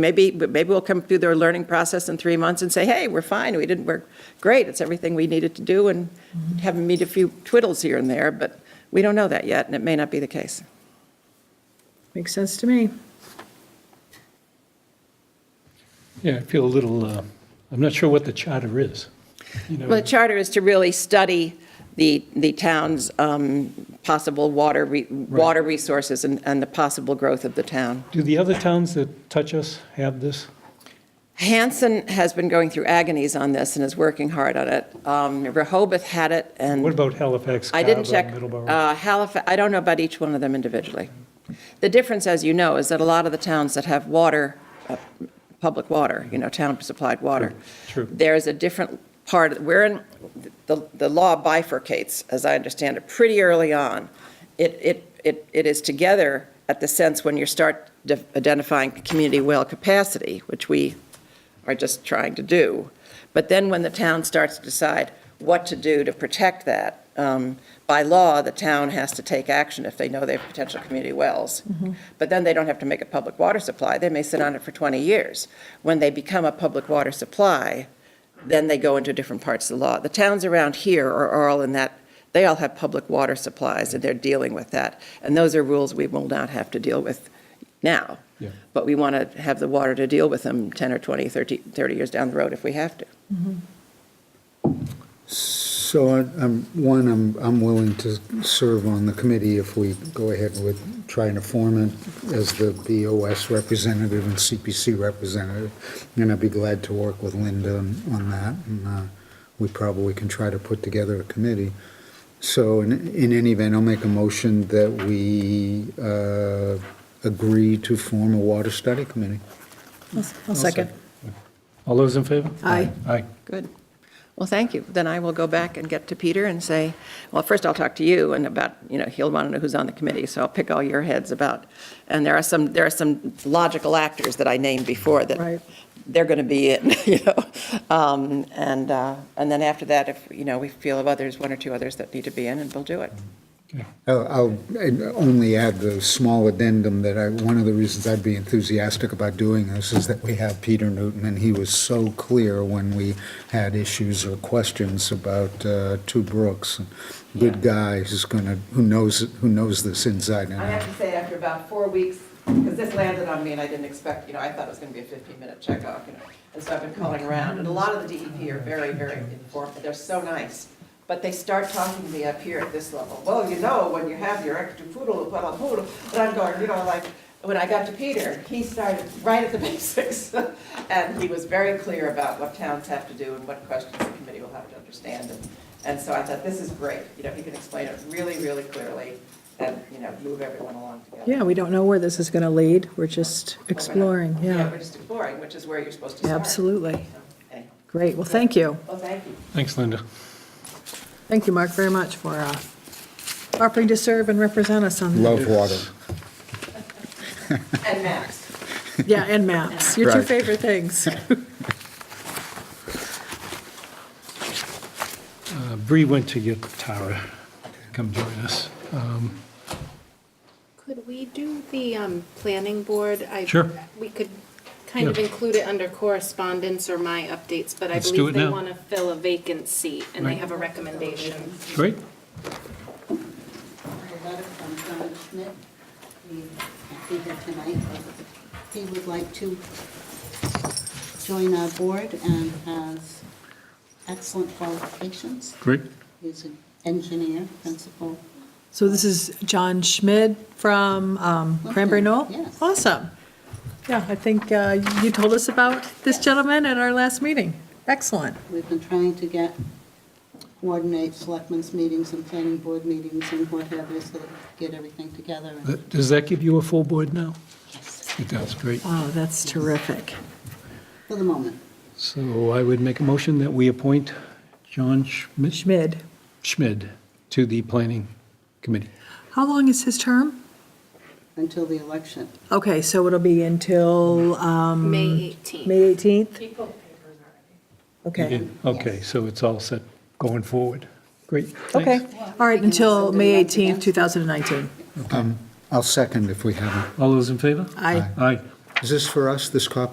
Maybe, maybe we'll come through their learning process in three months and say, hey, we're fine, we didn't, we're great, it's everything we needed to do, and Mm-hmm. have them meet a few twiddles here and there, but we don't know that yet, and it may not be the case. Makes sense to me. Yeah, I feel a little, uh, I'm not sure what the charter is. You know, Well, the charter is to really study the, the town's um, possible water, re- water resources and, and the possible growth of the town. Do the other towns that touch us have this? Hanson has been going through agonies on this and is working hard on it. Um, Rehoboth had it, and. What about Halifax, I didn't Carver, check Middleborough? uh, Halifax, I don't know about each one of them individually. The difference, as you know, is that a lot of the towns that have water, uh, public water, you know, town-supplied water, True, true. there's a different part, we're in, the, the law bifurcates, as I understand it, pretty early on. It, it, it it is together at the sense when you start de- identifying community well capacity, which we are just trying to do. But then when the town starts to decide what to do to protect that, um, by law, the town has to take action if they know they have potential community wells. But then they don't have to make a public water supply, they may sit on it for 20 years. When they become a public water supply, then they go into different parts of the law. The towns around here are are all in that, they all have public water supplies, and they're dealing with that. And those are rules we will not have to deal with now. Yeah. But we want to have the water to deal with them 10 or 20, 30, 30 years down the road if we have to. So I- I'm, one, I'm, I'm willing to serve on the committee if we go ahead with trying to form it as the BOS representative and CPC representative. And I'd be glad to work with Linda on on that, and uh, we probably can try to put together a committee. So in, in any event, I'll make a motion that we uh, agree to form a water study committee. I'll I'll second. All those in favor? Aye. Aye. Good. Well, thank you. Then I will go back and get to Peter and say, well, first I'll talk to you and about, you know, he'll want to know who's on the committee, so I'll pick all your heads about. And there are some, there are some logical actors that I named before Right. that they're going to be it, you know? Um, And, uh, and then after that, if, you know, we feel of others, one or two others that need to be in, and we'll do it. Okay. I'll I'll only add the small addendum that I, one of the reasons I'd be enthusiastic about doing this is that we have Peter Newton, and he was so clear when we had issues or questions about uh, Two Brooks. Good guy, who's gonna, who knows, who knows this inside and I out. have to say, after about four weeks, because this landed on me and I didn't expect, you know, I thought it was going to be a 15-minute checkoff, you know, and so I've been calling around, and a lot of the DEP are very, very informed, they're so nice, but they start talking to me up here at this level, well, you know, when you have your extra poodle, well, poodle, and I'm going, you know, like, when I got to Peter, he started right at the basics, and he was very clear about what towns have to do and what questions the committee will have to understand, and, and so I thought, this is great, you know, he can explain it really, really clearly, and, you know, move everyone along together. Yeah, we don't know where this is going to lead. We're just exploring, we're yeah. just exploring, which is where you're supposed to start. Absolutely. So, anyhow. Great, well, thank you. Well, thank you. Thanks, Linda. Thank you, Mark, very much for uh, offering to serve and represent us on that. Love water. And Max. Yeah, and maps, your two Right. favorite things. Uh, Bree went to get Tara. Come join us. Um, Could we do the um, planning board? I- Sure. We could kind of Yeah. include it under correspondence or my updates, but I Let's do believe it they now. want to fill a vacant seat, and they Right. have a recommendation. Great. a letter from John Schmidt, we have here tonight. He would like to join our board and has excellent qualifications. Great. He's an engineer, principal. So this is John Schmid from um, Cranberry Knoll? Yes. Awesome. Yeah, I think uh, you told us about this gentleman at our last meeting. Excellent. We've been trying to get, coordinate selectmen's meetings and planning board meetings and what have you, so that we get everything together. and- That- Does that give you a full board now? Yes, It does, great. Oh, that's terrific. For the moment. So I would make a motion that we appoint John Schmidt Schmid, Schmid to the planning committee. how long is his term? until the election. Okay, so it'll be until um, May 18th. May 18th? Okay, Okay, so it's all set going forward. Great. thanks. okay. All right, until May 18th, 2019. Um, I'll second if we haven't. All those in favor? Aye. Aye. Is this for us, this copy?